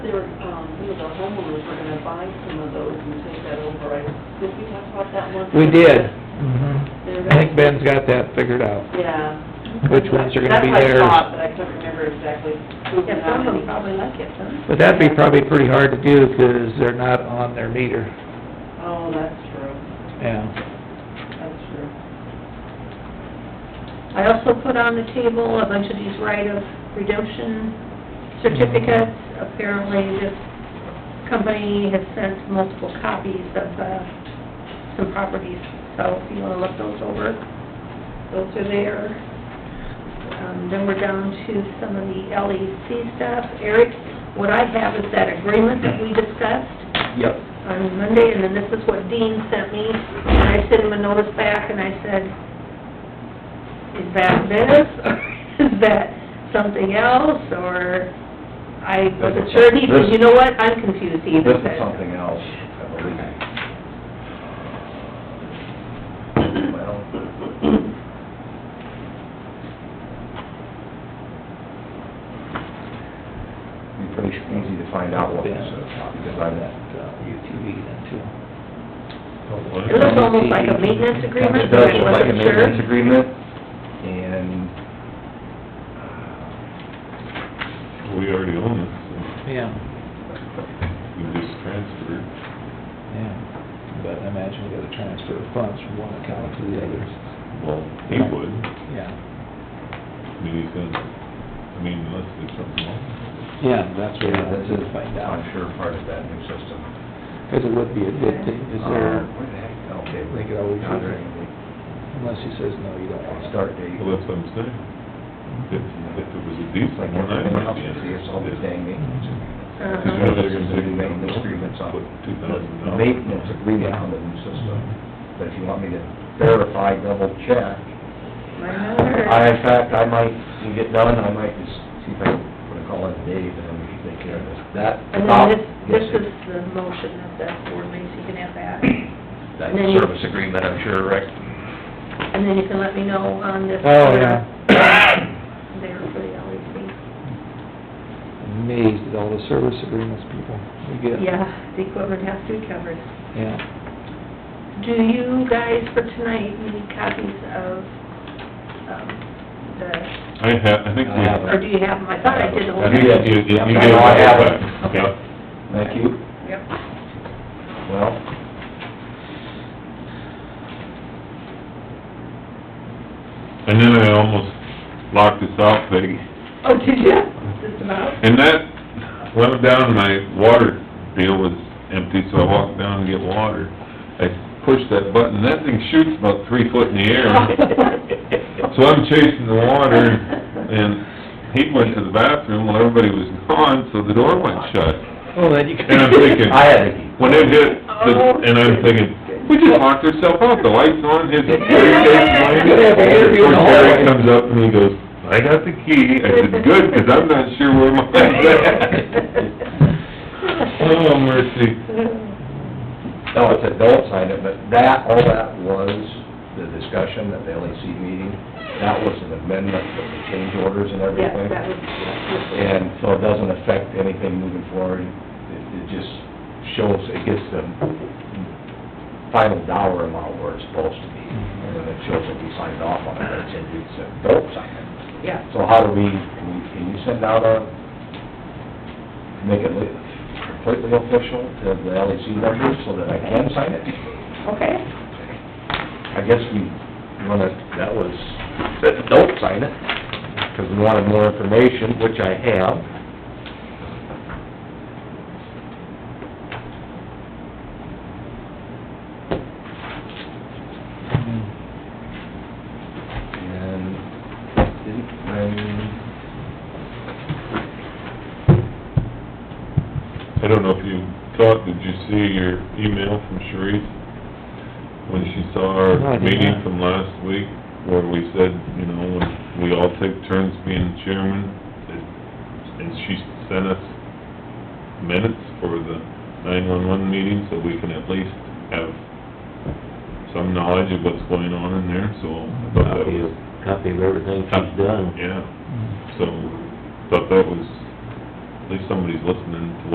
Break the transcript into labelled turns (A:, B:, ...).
A: There, um, some of our homeowners were gonna buy some of those and take that over, I, did we talk about that one?
B: We did.
C: Mm-hmm.
A: They're
B: I think Ben's got that figured out,
A: Yeah.
B: which ones are gonna be
A: That's
B: theirs.
A: what I thought, but I couldn't remember exactly who
C: Yeah,
A: and how many.
C: some of them probably like it, huh?
B: But that'd be probably pretty hard to do, 'cause they're not on their meter,
A: Oh, that's true,
B: yeah.
A: that's true.
C: I also put on the table a bunch of these right of redemption certificates. Apparently, this company has sent multiple copies of, uh, some properties, so if you wanna look those over, those are there. Um, then we're down to some of the LEC stuff. Eric, what I have is that agreement that we discussed.
D: Yep.
C: on Monday, and then this is what Dean sent me, and I sent him a notice back, and I said, is that this, or is that something else, or, I wasn't sure, and he said, you know what, I'm confused, he
D: This
C: even
D: is
C: said.
D: something else, I believe. Well, it'd be pretty easy to find out what this is, because I'm
B: uh, UTV then, too.
C: It looks almost like a maintenance agreement,
D: It
C: but
D: does
C: I
D: look like a
C: wasn't sure.
D: maintenance agreement, and uh,
E: We already own it, so
B: Yeah,
E: we just transferred.
B: yeah. But I imagine we gotta transfer funds from one account to the other.
E: Well, he would,
B: Yeah.
E: I mean, he's gonna, I mean, unless there's something wrong.
B: Yeah, that's what
D: yeah,
B: I
D: this
B: have
D: is,
B: to find out,
D: I'm sure, part of that new system.
B: 'cause it would be a good thing, is
D: Uh,
B: there,
D: Where the heck, okay.
B: They could always-
D: Not there anymore.
B: Uh, unless he says, no, you don't want to.
D: Start date.
E: Well, that's what I'm saying. If, if it was a decent
D: Like
E: one, I
D: everything
E: might
D: else,
E: be
D: you see, it's all the
E: interested.
D: dang maintenance.
C: Uh-huh.
E: Because you're gonna take it down,
D: Maintenance agreements on.
E: put two thousand dollars.
D: Maintenance agreement on the new system, but if you want me to verify, double check, I, in fact, I might, when we get done, I might just see if I can put a call in Dave and we can take care of this. That.
C: And then this, this is the motion of the ordinance, you can have that,
D: That service agreement, I'm sure, Rick.
C: and then you can let me know on this.
B: Oh, yeah.
C: There for the E LEC.
B: Amazed at all the service agreements people we get.
C: Yeah, the equipment has to be covered.
B: Yeah.
C: Do you guys for tonight need copies of, um, the,
E: I have, I think we.
D: I have
C: or do you have them? I thought I did the whole
E: I think
D: did.
E: you, you you
D: Yeah,
E: gave
D: I have
E: it
D: it.
E: back, yeah.
D: Thank you.
C: Yep.
D: Well,
E: And then I almost locked this out, Peggy.
C: Oh, did you? Just about?
E: And that, when I went down, my water deal was empty, so I walked down to get water. I pushed that button, that thing shoots about three foot in the air. So I'm chasing the water, and he went to the bathroom while everybody was gone, so the door went shut.
B: Well, then you
E: And I'm thinking,
D: I had to keep.
E: when it hit,
C: Oh.
E: the- and I'm thinking, we just locked ourselves out, the light's on, his... Jerry comes up and he goes, I got the key. I said, good, 'cause I'm not sure where mine's at. Oh, mercy. Oh.
D: No, it's adults signed it, but that, all that was, the discussion at the LEC meeting, that was an amendment of the change orders and
C: Yes,
D: everything.
C: that was, yeah.
D: And so it doesn't affect anything moving forward. It, it just shows, it gets the final dollar amount where it's supposed to be. And then it shows that he signed off on it, but it's, it's an adult signing.
C: Yeah.
D: So how do we, can we- can you send out a, make it li- completely official to the LEC members so that I can sign it?
C: Okay.
D: I guess we wanna, that was, that don't sign it, 'cause we wanted more information, which I have. And didn't, when,
E: I don't know if you thought, did you see your email from Sharice? When she saw
B: No, I
E: our
B: did
E: meeting
B: not.
E: from last week, where we said, you know, when we all take turns being chairman, that- and she sent us minutes for the nine-one-one meeting, so we can at least have some knowledge of what's going on in there, so I thought that
F: Copy
E: was...
F: of, copy of everything she's done.
E: Yeah, so, thought that was, at least somebody's listening to